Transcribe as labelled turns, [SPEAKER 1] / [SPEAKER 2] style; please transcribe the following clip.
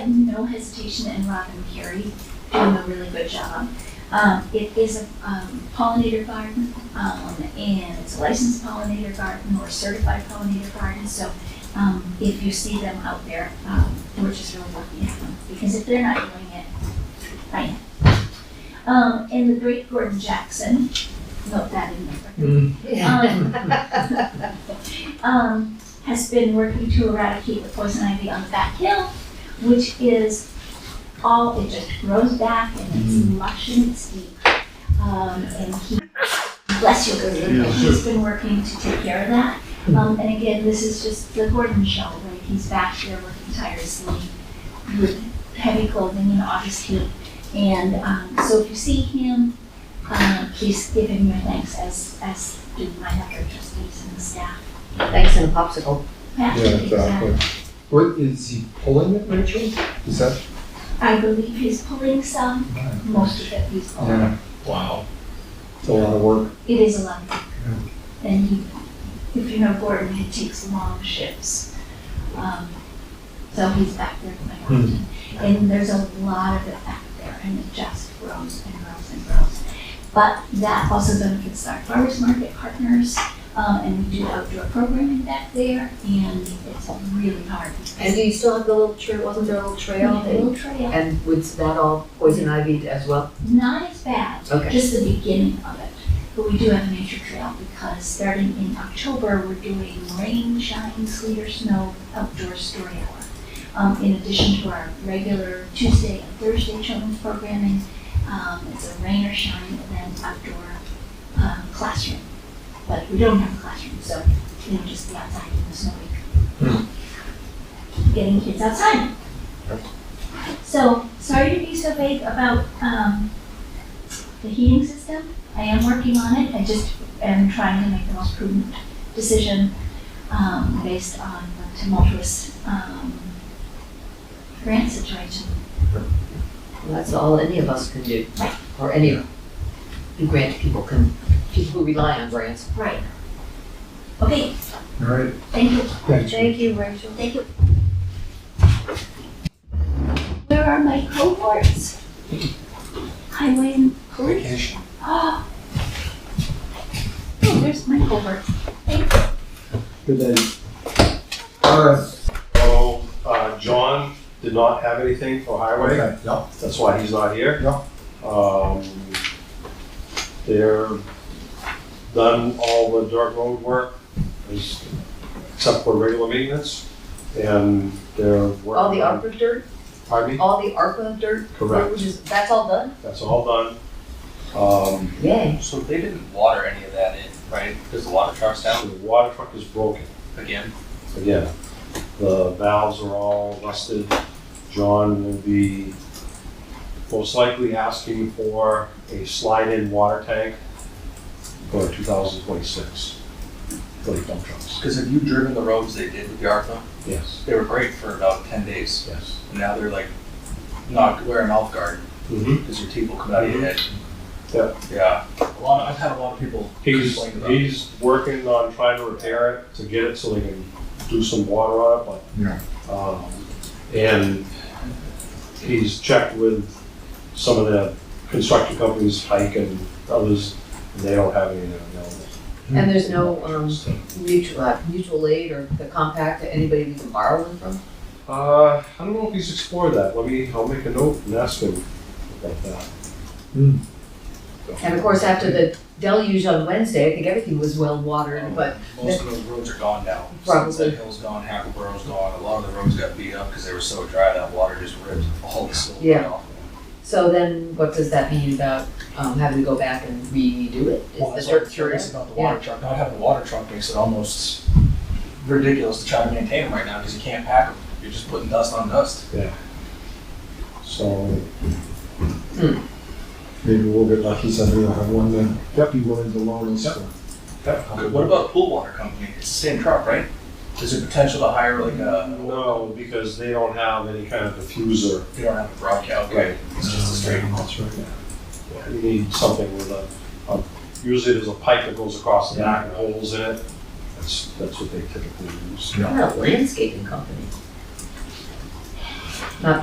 [SPEAKER 1] had no hesitation in Robin Carey doing a really good job. Um, it is a um, pollinator garden, um, and it's a licensed pollinator garden or certified pollinator garden, so, um, if you see them out there, um, we're just really lucky to have them, because if they're not doing it, I am. Um, and the great Gordon Jackson, note that in there. um, has been working to eradicate the poison ivy on the back hill, which is all, it just grows back and it's
[SPEAKER 2] Mm.
[SPEAKER 1] lush and it's deep. Um, and he, bless you, Gordon,
[SPEAKER 2] Yeah. Hmm.
[SPEAKER 1] he's been working to take care of that. Um, and again, this is just the Gordon show, right? He's back there working tirelessly with heavy clothing and August heat. And, um, so if you see him, um, please give him your thanks as, as do my other trustees and the staff.
[SPEAKER 3] Thanks and a popsicle.
[SPEAKER 1] Yeah,
[SPEAKER 2] Yeah, exactly. What, is he pulling it, Rachel? Is that?
[SPEAKER 1] I believe he's pulling some, most of it he's pulling.
[SPEAKER 2] um, Wow. It's a lot of work.
[SPEAKER 1] It is a lot of work. And he, if you know Gordon, he takes long shifts. Um, So he's back there quite often. And there's a lot of it back there and it just grows and grows and grows. But that also benefits our farmers market partners, um, and we do outdoor programming back there and it's really hard.
[SPEAKER 3] And do you still have the little trail, wasn't there a little trail?
[SPEAKER 1] Yeah,
[SPEAKER 3] that-
[SPEAKER 1] Little trail,
[SPEAKER 3] Mm-hmm. And was that all poison ivy as well?
[SPEAKER 1] not as bad,
[SPEAKER 3] Okay.
[SPEAKER 1] just the beginning of it. But we do have a nature trail because starting in October, we're doing rain, shine, sleet, or snow outdoor story hour. Um, in addition to our regular Tuesday and Thursday children's programming, um, it's a rain or shine event outdoor um, classroom. But we don't have a classroom, so you know, just be outside in the snow week. Getting kids outside. So sorry to be so vague about um, the heating system. I am working on it. I just am trying to make the most prudent decision um, based on the tumultuous um, grant situation.
[SPEAKER 3] Well, That's all any of us can do, or any of the grant people can, people who rely on grants.
[SPEAKER 1] Right. Okay,
[SPEAKER 2] All right.
[SPEAKER 1] thank you.
[SPEAKER 2] Thanks.
[SPEAKER 3] you, Rachel.
[SPEAKER 1] Thank you. Where are my cohorts? Highway and police? Oh, Oh, there's my cohort. Thank you.
[SPEAKER 2] Good night. All right.
[SPEAKER 4] So, uh, John did not have anything for highway,
[SPEAKER 2] Okay, yep.
[SPEAKER 4] that's why he's not here.
[SPEAKER 2] Yeah.
[SPEAKER 4] Um, they're done all the dirt road work, is- except for regular maintenance, and they're working.
[SPEAKER 3] All the ARPA dirt,
[SPEAKER 4] Pardon me?
[SPEAKER 3] all the ARPA dirt,
[SPEAKER 4] Correct.
[SPEAKER 3] which is, that's all done?
[SPEAKER 4] That's all done. Um,
[SPEAKER 3] Yay.
[SPEAKER 5] So they didn't water any of that in, right? Because the water truck's
[SPEAKER 4] so
[SPEAKER 5] down
[SPEAKER 4] the water truck is broken
[SPEAKER 5] again.
[SPEAKER 4] again. The valves are all rusted. John will be most likely asking for a slide-in water tank for 2026 for the dump trucks.
[SPEAKER 5] Because have you driven the roads they did with the ARPA?
[SPEAKER 4] Yes,
[SPEAKER 5] They were great for about ten days.
[SPEAKER 4] yes.
[SPEAKER 5] And now they're like, not wear an elf guard
[SPEAKER 4] Mhm.
[SPEAKER 5] because your teeth will come out of your head.
[SPEAKER 4] Yeah.
[SPEAKER 5] Yeah. A lot. Of, I've had a lot of people
[SPEAKER 4] He's,
[SPEAKER 5] complain about. it.
[SPEAKER 4] he's working on trying to repair it, to get it so they can do some water on it, but.
[SPEAKER 2] Yeah.
[SPEAKER 4] Um, and he's checked with some of the construction companies, Pike and others, and they don't have any available.
[SPEAKER 3] And there's no, um, mutual, uh, mutual aid or the compact that anybody we can borrow them from?
[SPEAKER 4] Uh, I don't know if he's explored that, let me, I'll make a note and ask him about that.
[SPEAKER 2] Hmm.
[SPEAKER 3] And of course, after the deluge on Wednesday, I think everything was well watered, but
[SPEAKER 5] Most of those roads are gone now.
[SPEAKER 3] Probably.
[SPEAKER 5] Sunset Hill's gone, Hackleboro's gone. A lot of the roads got beat up because they were so dry that water just ripped all the silver
[SPEAKER 3] Yeah.
[SPEAKER 5] off.
[SPEAKER 3] So then, what does that mean about um, having to go back and redo it? Is
[SPEAKER 5] Well,
[SPEAKER 3] the
[SPEAKER 5] that's why I'm
[SPEAKER 3] dirt
[SPEAKER 5] curious
[SPEAKER 3] curious?
[SPEAKER 5] about the water truck. Not having a water truck makes it almost ridiculous to try to maintain them right now because you can't pack them. You're just putting dust on dust.
[SPEAKER 4] So,
[SPEAKER 2] hmm. Maybe we'll get lucky someday. I'll have one then. Yep. Be willing to loan us. one.
[SPEAKER 5] What about pool water company? It's the same truck, right? Is there potential to hire like a,
[SPEAKER 4] no, because they don't have any kind of diffuser.
[SPEAKER 5] they don't have a broadcast, right? It's just a straight.
[SPEAKER 2] That's right.
[SPEAKER 4] You need something with a, a- usually there's a pipe that goes across the back and holes in it. That's, that's what they typically use.
[SPEAKER 3] What about a landscaping company?